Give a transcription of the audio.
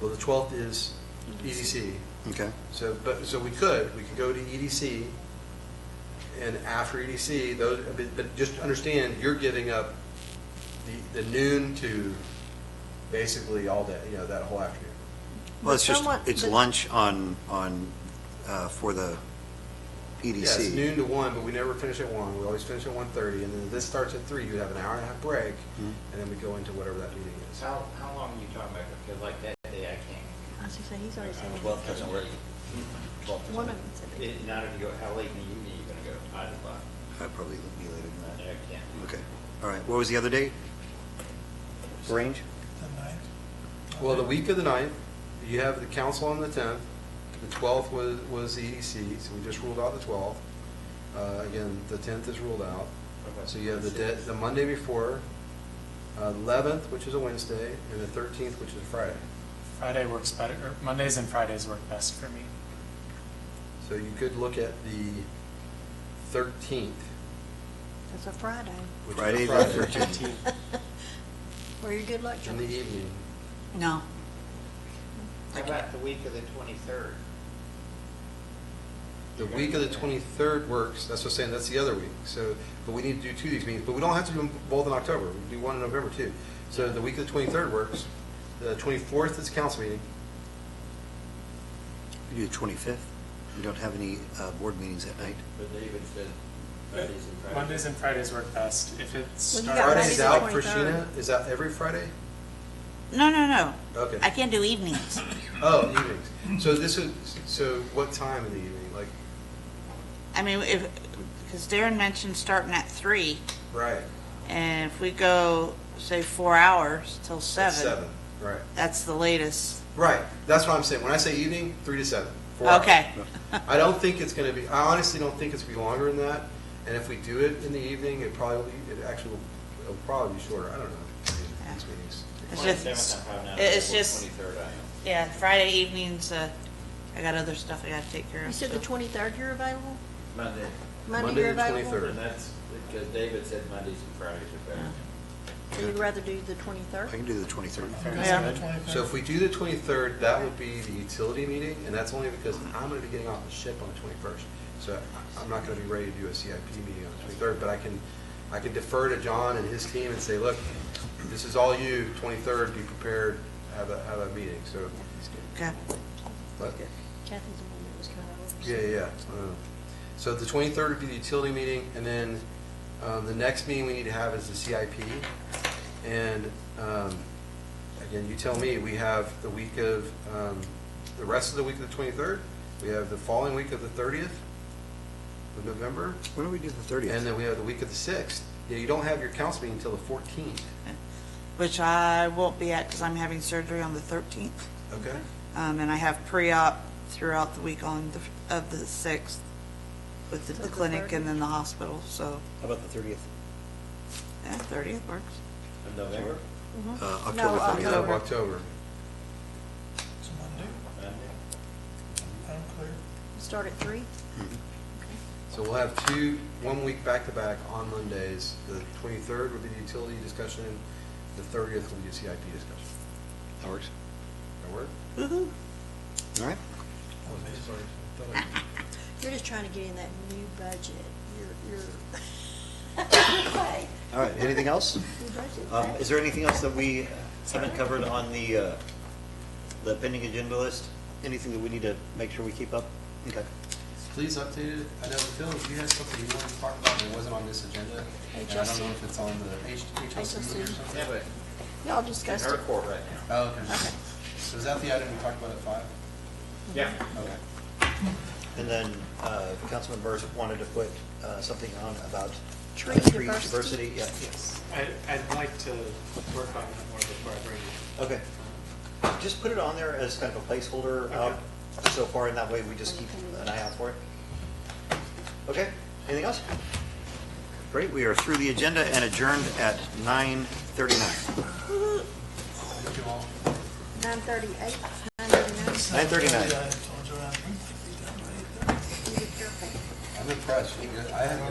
Well, the 12th is EDC, Okay. so, but, so we could, we could go to EDC, and after EDC, those, but- but just understand, you're giving up the the noon to basically all day, you know, that whole afternoon. Well, it's just, Somewhat- it's but- lunch on, on, uh, for the E Yeah, it's EDC. noon to one, but we never finish at one, we always finish at 1:30, and then this starts at three, you have an hour and a half break, Mhm. and then we go into whatever that meeting is. How, how long are you talking about? Because like that day, I can't, I was gonna say, he's already saying. Twelve doesn't work. Twelve doesn't One work. of them said they. it- not if you go, how late in the evening are you gonna go? Five o'clock? I'd probably be later than No, I can't. that. Okay, all right. What was the other date? Range? The ninth? Well, the week of the ninth, you have the council on the tenth, the twelfth was, was the EDC, so we just ruled out the twelfth. Uh, again, the tenth is ruled out, so you have the de- the Monday before, eleventh, which is a Wednesday, and the thirteenth, which is a Friday. Friday works better, or Mondays and Fridays work best for me. So you could look at the thirteenth, It's a Friday. which Friday, is a the Friday. 13th. Were you good luck, In the George? evening, No. How about the week of the twenty-third? the week of the twenty-third works, that's what I'm saying, that's the other week, so, but we need to do two of these meetings, but we don't have to do them both in October, we can do one in November too. So the week of the twenty-third works, the twenty-fourth is council meeting, We do the 25th. We don't have any uh, board meetings that night. But David said Mondays and Fridays. Mondays and Fridays work best. If Well, you it got starts. Friday Friday's the out for 23rd. Sheena, is that every Friday? No, no, no. Okay. I can't do evenings. Oh, evenings, so this is, so what time in the evening, like, I mean, if, because Darren mentioned starting at three, right? and if we go, say, four hours till at seven. Seven, right, That's the latest. right, that's what I'm saying, when I say evening, three to seven. four hours. Okay. I don't think it's gonna be, I honestly don't think it's gonna be longer than that, and if we do it in the evening, it probably, it actually, will- it'll probably be shorter, I don't know. I mean, these meetings. It's just- Twenty-seventh, I'm probably not. it- it's just- Twenty-third, I am. Yeah, Friday evenings, uh, I got other stuff I gotta take care of. You said so- the twenty-third you're available? Monday. Monday Monday you're the available? 23rd. And that's because David said Mondays and Fridays are better. So you'd rather do the I twenty-third? can do the 23rd. Fridays Yeah. good. So if we do the twenty-third, that would be the utility meeting, and that's only because I'm gonna be getting off the ship on the twenty-first. So I- I'm not gonna be ready to do a CIP meeting on the twenty-third, but I can, I can defer to John and his team and say, look, this is all you, twenty-third, be prepared, have a, have a meeting, so, Okay. but, Kathy's the one that was kind of. yeah, yeah. uh, So the twenty-third would be the utility meeting, and then, um, the next meeting we need to have is the CIP. And, um, again, you tell me, we have the week of, um, the rest of the week of the twenty-third, we have the following week of the thirtieth of November, When do we do the and 30th? then we have the week of the sixth. Yeah, you don't have your council meeting until the fourteenth, Which I won't be at because I'm having surgery on the thirteenth, okay? um, and I have pre-op throughout the week on the, of the sixth with the- So the the clinic 30th? and then the hospital, so, How about the 30th? yeah, thirtieth works. Of November? Uh, Mm-hmm. No, October 30th. We have October. It's Monday? Monday. I'm clear. Start at three? So we'll have two, one week back-to-back on Mondays. The 23rd would be the utility discussion, the 30th would be the CIP discussion. That works. That work? Woo-hoo. All right. You're just trying to get in that new budget. You're, you're. All right. Anything else? New budget. Um, Is there anything else that we haven't covered on the, uh, the pending agenda list? Anything that we need to make sure we keep up? Okay. Please update it. I know, Phil, if you had something you wanted to talk about that wasn't on this agenda, and I don't know if it's on the H- HLC or HLC. something. Yeah, but Y'all in discussed her it. court right now. Oh, okay. So is that the item we talked about at five? Yeah. Okay. And then uh, Councilman Burris wanted to put uh, something on about. uh, Tree diversity. Yeah, yes. I, I'd like to work on it more before I bring it. Okay. Just put it on there as kind of a placeholder out so far, and that way we just keep an eye out for it. Okay, anything else? Great, we are through the agenda and adjourned at 9:39. Nine thirty-eight, nine thirty-nine. 9:39. You were perfect. I'm impressed. You- I haven't